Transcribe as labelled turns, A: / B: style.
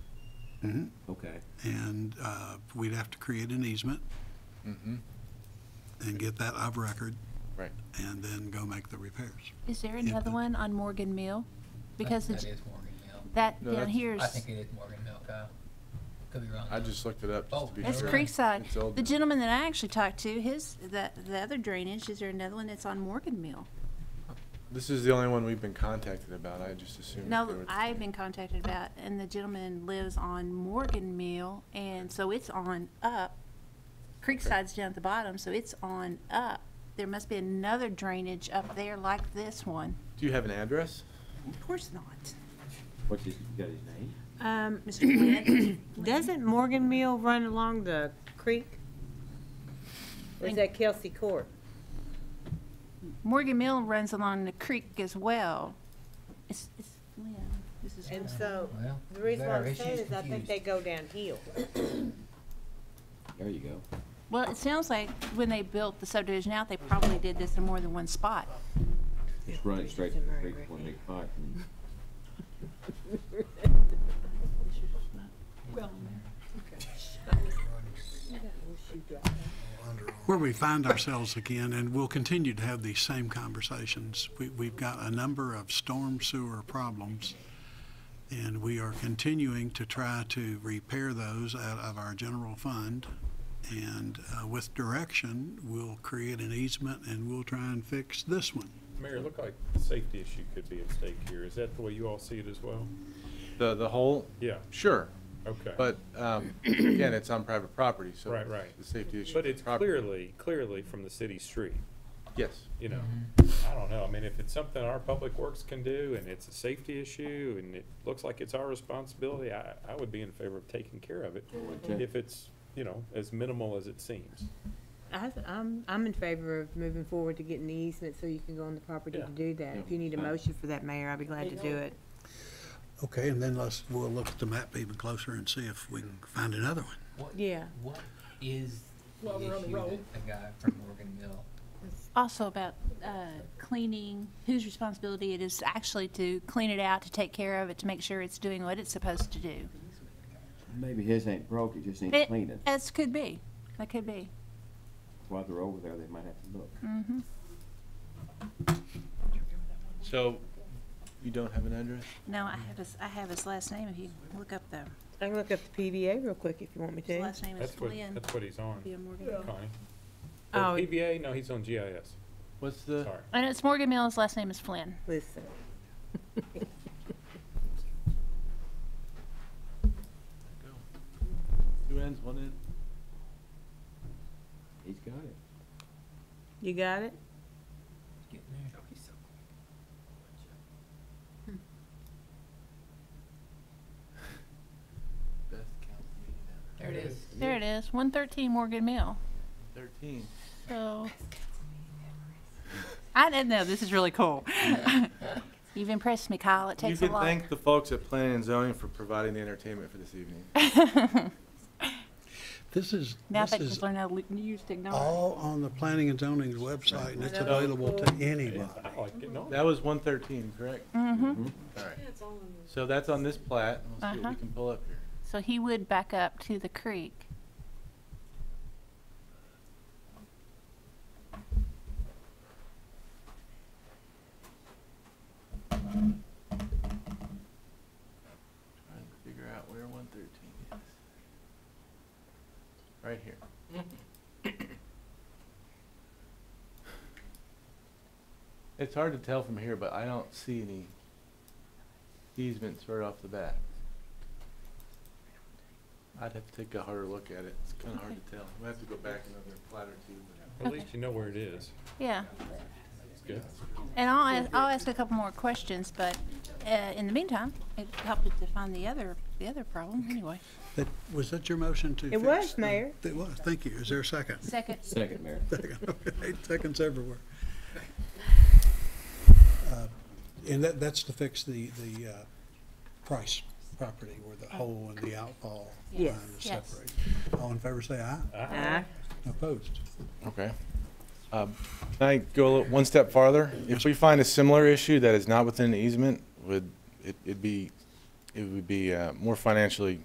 A: Okay,
B: and uh, we'd have to create an easement
C: Mm-hmm.
B: and get that of record
C: Right.
B: and then go make the repairs.
D: Is there
B: Yeah,
D: another
B: but-
D: one on Morgan Mill? Because
E: That
D: it's,
E: is Morgan Hill.
D: that
C: No,
D: down
C: that's-
D: here's,
E: I think it is Morgan Hill, Kyle. Could be wrong.
C: I
E: though.
C: just looked it up just to be
D: Oh, that's
C: sure.
E: Creek
C: It's all
D: Creekside. The
C: good.
D: gentleman that I actually talked to, his, the, the other drainage, is there another one that's on Morgan Mill?
C: This is the only one we've been contacted about. I just assumed. they
D: No,
C: were-
D: I've been contacted about, and the gentleman lives on Morgan Mill, and so it's on up. Creekside's down at the bottom, so it's on up. There must be another drainage up there like this one.
C: Do you have an address?
D: Of course not.
A: what's his, you got his name?
F: Um,
D: Mr. Flynn?
F: doesn't Morgan Mill run along the creek? Or is that Kelsey Court?
D: Morgan Mill runs along the creek as well. It's, it's, Lynn, this is.
F: And so,
E: Well,
F: the reason why
E: there,
F: I'm
E: it's
F: saying
E: just
F: is I think
E: confused.
F: they go downhill.
A: There you go.
D: Well, it sounds like when they built the subdivision out, they probably did this in more than one spot.
A: Just running straight to the creek, one big pipe. and-
B: Where we find ourselves again, and we'll continue to have these same conversations, we, we've got a number of storm sewer problems, and we are continuing to try to repair those out of our general fund. And uh, with direction, we'll create an easement and we'll try and fix this one.
G: Mayor, it looked like the safety issue could be at stake here. Is that the way you all see it as well?
C: The, the whole?
G: Yeah,
C: Sure,
G: okay.
C: but, um, again, it's on private property, so.
G: Right, right.
C: The safety issue.
G: But
C: is
G: it's
C: property.
G: clearly, clearly from the city street,
C: Yes.
G: you know?
C: Mm-hmm.
G: I don't know. I mean, if it's something our public works can do and it's a safety issue and it looks like it's our responsibility, I, I would be in favor of taking care of it.
A: Okay.
G: If it's, you know, as minimal as it seems.
F: I, am I'm in favor of moving forward to getting the easement so you can go on the property
G: Yeah.
F: to do that. If you need a motion for that, Mayor, I'd be glad to do it.
B: Okay, and then let's, we'll look at the map even closer and see if we can find another one.
E: What-
F: Yeah.
E: What is the issue that the guy from Morgan Hill?
D: Also about uh, cleaning, whose responsibility it is actually to clean it out, to take care of it, to make sure it's doing what it's supposed to do.
A: Maybe his ain't broke, it just needs
D: It-
A: cleaning.
D: As could be, that could be.
A: While they're over there, they might have to look.
C: So, you don't have an address?
D: No, I have his, I have his last name, if you look up the,
F: I can look up the PVA real quick if you want me
D: his
F: to.
D: last name is
G: That's what,
D: Flynn.
G: that's what he's on,
D: Be a Morgan.
G: Connie.
F: Oh.
G: Or PBA? No, he's on GIS.
C: What's the?
G: Sorry.
D: And it's Morgan Mill, his last name is Flynn.
F: Listen,
C: Two ends, one end?
A: He's got it.
F: you got it?
E: Getting there.
C: Best count
E: There it is.
D: There it is, 113 Morgan Mill.
C: Thirteen.
D: So, I didn't know, this is really cool. You've impressed me, Kyle, it
C: You
D: takes a
C: can
D: lot.
C: thank the folks at Planning and Zoning for providing the entertainment for this evening.
B: This is,
D: Now
B: this
D: that
B: is
D: you've learned how to use technology.
B: all on the planning and zoning's website, and it's available to anybody.
G: I like getting on.
C: That was one thirteen, correct?
D: Mm-hmm,
C: All right. So that's on this plat. We'll see what we
D: Uh-huh.
C: can pull up here.
D: so he would back up to the creek.
C: Trying to figure out where one thirteen is. Right here. It's hard to tell from here, but I don't see any easements right off the bat. I'd have to take a harder look at it. It's kinda hard to tell. We'll have to go back another plat or two.
G: At least you know where it is.
D: Yeah,
G: It's good.
D: and I'll, ask- I'll ask a couple more questions, but uh, in the meantime, it helped to find the other, the other problem, anyway.
B: That, was that your motion to
F: It
B: fix?
F: was,
B: the-
F: Mayor.
B: It was, thank you. Is there a second?
D: Second,
A: Second, Mayor.
B: Second, okay, seconds everywhere. Uh, And that, that's to fix the, the uh, Price property where the hole and the outfall line
F: Yes.
B: is
D: Yes.
B: separated. All in favor, say aye.
F: Uh,
B: Opposed?
C: Okay. Um, Can I go a little- one step farther? If we find a similar issue that is not within the easement, would, it- it'd be, it would be uh, more financially